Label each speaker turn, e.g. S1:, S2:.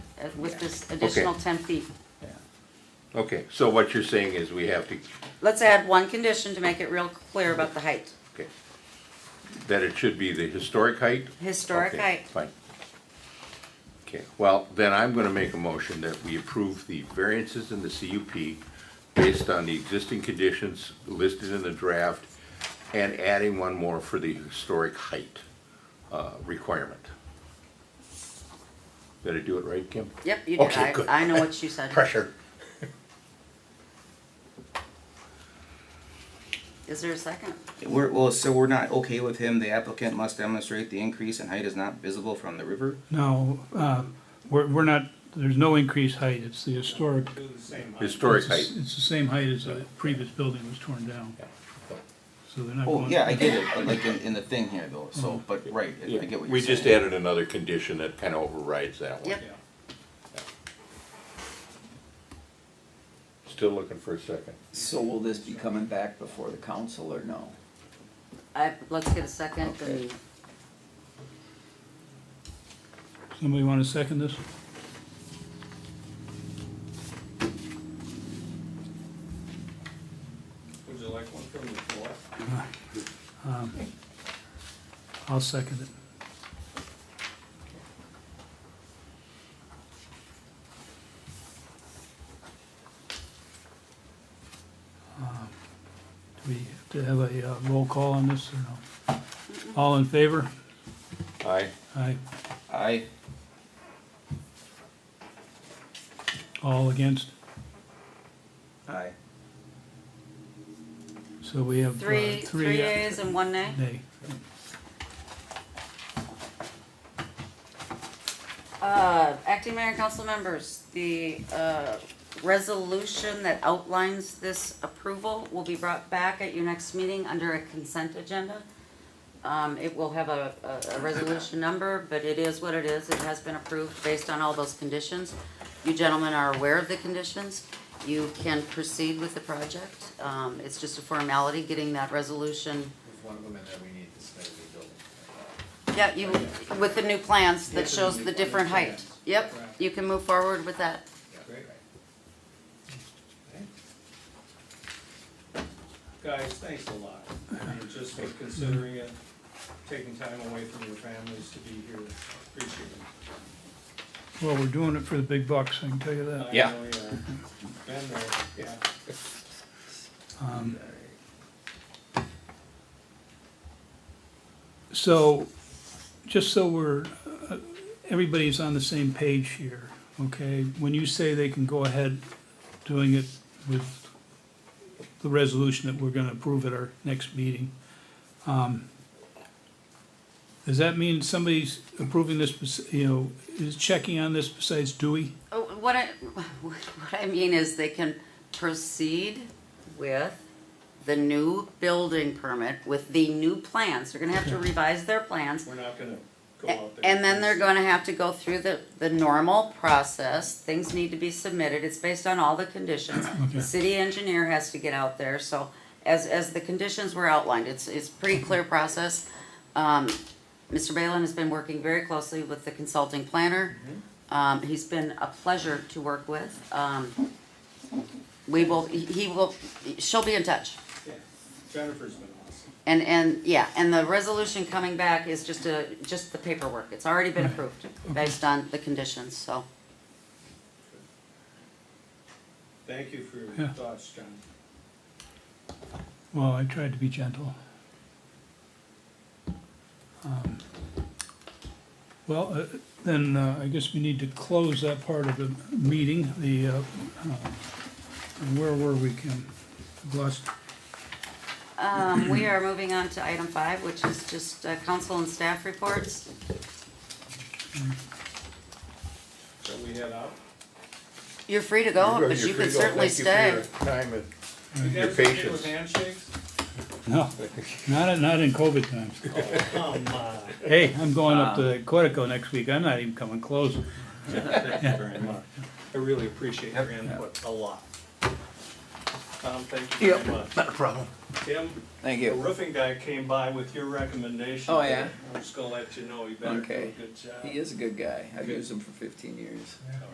S1: uh, with this additional ten feet.
S2: Okay, so what you're saying is we have to,
S1: Let's add one condition to make it real clear about the height,
S2: okay, that it should be the historic height?
S1: historic
S2: Okay,
S1: height.
S2: Fine. Okay, well, then I'm gonna make a motion that we approve the variances in the CUP based on the existing conditions listed in the draft and adding one more for the historic height, uh, requirement. Did I do it right, Kim?
S1: Yep, you did,
S2: Okay,
S1: I,
S2: good.
S1: I know what you said.
S2: Pressure.
S1: Is there a second?
S3: We're, well, so we're not okay with him, the applicant must demonstrate the increase in height is not visible from the river?
S4: No, uh, we're, we're not, there's no increased height, it's the historic.
S2: Historic height.
S4: It's it's the same height as the previous building was torn down. So they're not
S3: Oh,
S4: going.
S3: yeah, I get it, but like in, in the thing here though, so, but right, I I get what
S2: Mm-hmm. We
S3: you're
S2: just
S3: saying.
S2: added another condition that kind of overrides that one.
S1: Yep,
S2: Still looking for a second.
S5: So will this be coming back before the council or no?
S1: I, let's get a second
S5: Okay.
S1: and
S4: Somebody wanna second this?
S6: Would you like one from the floor?
S4: Um, I'll second it. Um, Do we have to have a uh, roll call on this or no? All in favor?
S2: Aye.
S4: Aye.
S3: I,
S4: All against?
S3: I,
S4: So we have. uh,
S1: three, three
S4: uh,
S1: yeas and one nay?
S4: Nay.
S1: Uh, acting mayor and council members, the, uh, resolution that outlines this approval will be brought back at your next meeting under a consent agenda. Um, it will have a, a, a resolution number, but it is what it is. It has been approved based on all those conditions. You gentlemen are aware of the conditions. You can proceed with the project. Um, it's just a formality, getting that resolution.
S6: There's one of them in there we need to submit to
S1: Yeah,
S6: the building.
S1: you, with the new plans that
S6: Yeah.
S1: shows the different height. Yep, you can move forward with that.
S6: Great. Guys, thanks a lot. I mean, Just for considering it, taking time away from your families to be here, appreciate it.
S4: Well, we're doing it for the big bucks, I can tell you that.
S6: I
S2: Yeah.
S6: know, Been there, yeah.
S4: Um, So, just so we're, uh, everybody's on the same page here, okay? When you say they can go ahead doing it with the resolution that we're gonna approve at our next meeting, um, does that mean somebody's approving this, bes- you know, is checking on this besides Dewey?
S1: Oh, What I, what I mean is they can proceed with the new building permit with the new plans. They're gonna have to revise their plans.
S6: We're not gonna go
S1: A-
S6: out there.
S1: And then they're gonna have to go through the, the normal process. Things need to be submitted. It's based on all the conditions. The city engineer has to get out there, so as, as the conditions were outlined, it's, it's pretty clear process. Um, Mr. Balin has been working very closely with the consulting planner.
S6: Mm-hmm.
S1: Um, he's been a pleasure to work with. Um, we will, he- he will, she'll be in touch.
S6: Yeah. Jennifer's been awesome.
S1: And, and, yeah, and the resolution coming back is just a, just the paperwork, it's already been approved based on the conditions, so.
S6: Thank you for your
S4: Yeah.
S6: thoughts, John.
S4: Well, I tried to be gentle. Um, Well, uh, then, uh, I guess we need to close that part of the meeting, the, uh, uh, where were we, Kim? I've Lost,
S1: Um, we are moving on to item five, which is just uh, council and staff reports.
S6: Shall we head out?
S1: You're free to go, Oh, but you can certainly stay.
S2: Time and
S6: You
S2: Your
S6: guys okay
S2: patience.
S6: with handshakes?
S4: no, not, not in COVID times.
S6: Oh, Come on. Um,
S4: Hey, I'm going up to Quetico next week, I'm not even coming close.
S6: Thank you very much. I really appreciate your input a lot. Tom, thank you very much.
S2: not a problem.
S6: Tim,
S5: Thank
S6: the
S5: you.
S6: roofing guy came by with your recommendation.
S5: Oh, yeah?
S6: I'm just gonna let you know, you better do a
S5: Okay.
S6: good job.
S5: He is a good guy. I've used him for fifteen years.